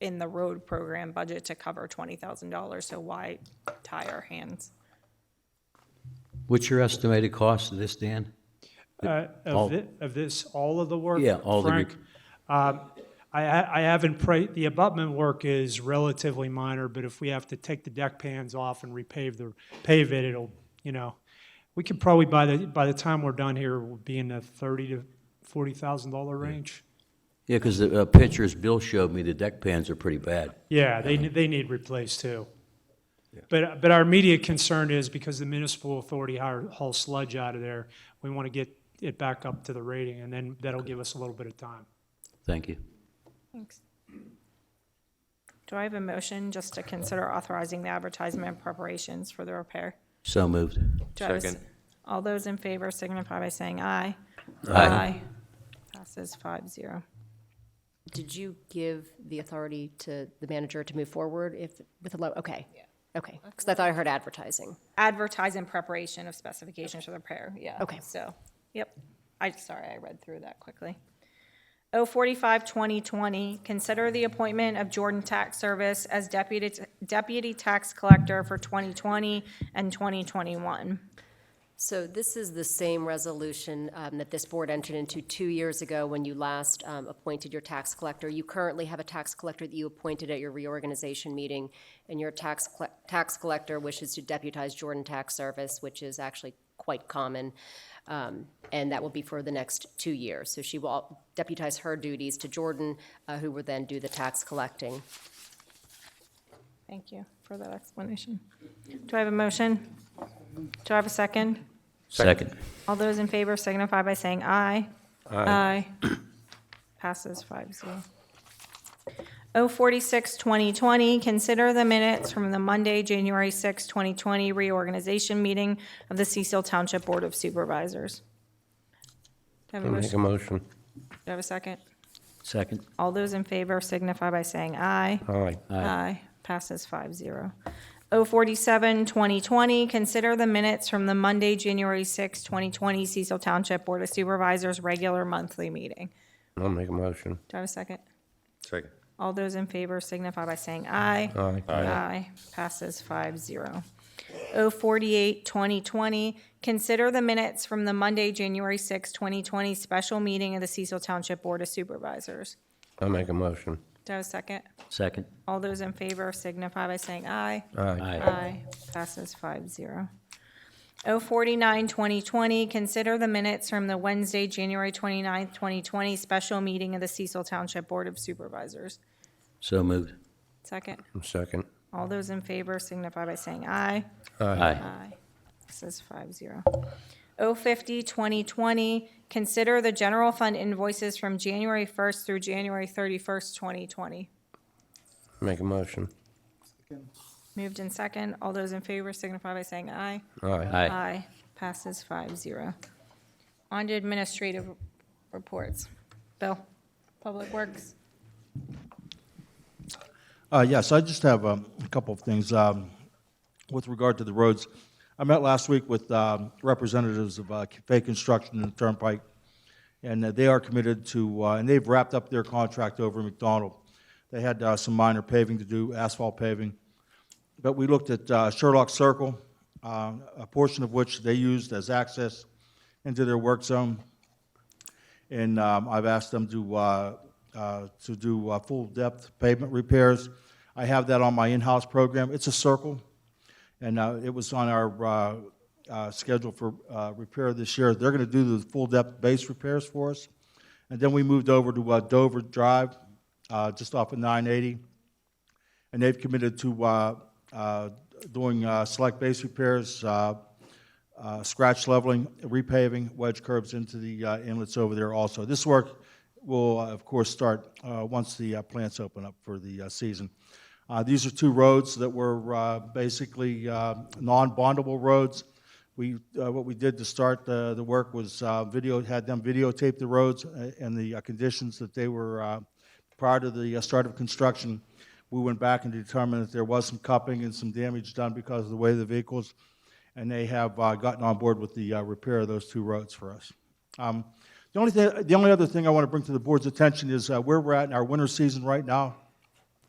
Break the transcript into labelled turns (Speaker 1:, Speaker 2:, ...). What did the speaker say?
Speaker 1: in the road program budget to cover twenty thousand dollars, so why tie our hands?
Speaker 2: What's your estimated cost of this, Dan?
Speaker 3: Uh,
Speaker 2: All-
Speaker 3: Of thi- of this, all of the work?
Speaker 2: Yeah, all the
Speaker 3: Frank,
Speaker 2: rec-
Speaker 3: um, I ha- I haven't, pra- the abutment work is relatively minor, but if we have to take the deck pans off and repave the, pave it, it'll, you know, we could probably, by the, by the time we're done here, we'll be in the thirty to $40,000 range.
Speaker 2: Yeah, because the uh, pictures Bill showed me, the deck pans are pretty bad.
Speaker 3: Yeah, they, ne- they need replaced too. But, but our immediate concern is because the municipal authority hire- hauls sludge out of there, we want to get it back up to the rating, and then that'll give us a little bit of time.
Speaker 2: Thank you.
Speaker 1: Thanks. Do I have a motion just to consider authorizing the advertisement and preparations for the repair?
Speaker 2: So moved.
Speaker 1: Do I have a s-
Speaker 4: Second.
Speaker 1: All those in favor signify by saying aye.
Speaker 2: Aye.
Speaker 1: Passes five zero.
Speaker 5: Did you give the authority to the manager to move forward if, with a low, okay? Yeah. Okay, because I thought I heard advertising.
Speaker 1: Advertise in preparation of specifications for the repair, yeah.
Speaker 5: Okay.
Speaker 1: So, yep. I, sorry, I read through that quickly. O forty-five, twenty twenty, consider the appointment of Jordan Tax Service as deputy, deputy tax collector for twenty twenty and twenty twenty-one.
Speaker 5: So this is the same resolution um, that this board entered into two years ago when you last um, appointed your tax collector. You currently have a tax collector that you appointed at your reorganization meeting, and your tax, colle- tax collector wishes to deputize Jordan Tax Service, which is actually quite common, um, and that will be for the next two years. So she will deputize her duties to Jordan, uh, who will then do the tax collecting.
Speaker 1: Thank you for that explanation. Do I have a motion? Do I have a second?
Speaker 2: Second.
Speaker 1: All those in favor signify by saying aye. Aye. Passes five zero. O forty-six, twenty twenty, consider the minutes from the Monday, January sixth, twenty twenty reorganization meeting of the Cecil Township Board of Supervisors. Do I have a
Speaker 4: Make a
Speaker 1: motion?
Speaker 4: motion.
Speaker 1: Do I have a second?
Speaker 2: Second.
Speaker 1: All those in favor signify by saying aye.
Speaker 4: Aye.
Speaker 1: Aye. Passes five zero. O forty-seven, twenty twenty, consider the minutes from the Monday, January sixth, twenty twenty Cecil Township Board of Supervisors regular monthly meeting.
Speaker 4: I'll make a motion.
Speaker 1: Do I have a second?
Speaker 4: Second.
Speaker 1: All those in favor signify by saying aye.
Speaker 4: Aye.
Speaker 1: Aye. Passes five zero. O forty-eight, twenty twenty, consider the minutes from the Monday, January sixth, twenty twenty special meeting of the Cecil Township Board of Supervisors.
Speaker 4: I'll make a motion.
Speaker 1: Do I have a second?
Speaker 2: Second.
Speaker 1: All those in favor signify by saying aye.
Speaker 4: Aye.
Speaker 1: Aye, passes five zero. O forty-nine, twenty twenty, consider the minutes from the Wednesday, January twenty-ninth, twenty twenty, special meeting of the Cecil Township Board of Supervisors.
Speaker 2: So moved.
Speaker 1: Second,
Speaker 4: Second.
Speaker 1: all those in favor signify by saying aye.
Speaker 2: Aye.
Speaker 1: Aye. Passes five zero. O fifty, twenty twenty, consider the general fund invoices from January first through January thirty-first, twenty twenty.
Speaker 4: Make a motion.
Speaker 1: Moved in second, all those in favor signify by saying aye.
Speaker 4: Aye.
Speaker 2: Aye.
Speaker 1: Aye. Passes five zero. On to administrative reports. Bill, Public Works.
Speaker 6: Uh, Yes, I just have um, a couple of things um, with regard to the roads. I met last week with um, representatives of uh, Fay Construction and Turnpike, and uh, they are committed to, uh, and they've wrapped up their contract over in McDonald. They had uh, some minor paving to do, asphalt paving, but we looked at uh, Sherlock Circle, uh, a portion of which they used as access into their work zone. And um, I've asked them to, uh, uh, to do uh, full-depth pavement repairs. I have that on my in-house program. It's a circle, and uh, it was on our uh, uh, schedule for uh, repair this year. They're going to do the full-depth base repairs for us. And then we moved over to uh, Dover Drive, uh, just off of 980, and they've committed to uh, uh, doing uh, select base repairs, uh, uh, scratch leveling, repaving, wedge curbs into the uh, inlets over there also. This work will, uh, of course, start uh, once the uh, plants open up for the uh, season. Uh, These are two roads that were uh, basically uh, non-bondable roads. We, uh, what we did to start the, the work was uh, video, had them videotape the roads uh, and the uh, conditions that they were uh, prior to the uh, start of construction. We went back and determined that there was some cupping and some damage done because of the way the vehicles and they have uh, gotten on board with the uh, repair of those two roads for us. Um, The only thing, the only other thing I want to bring to the board's attention is uh, where we're at in our winter season right now.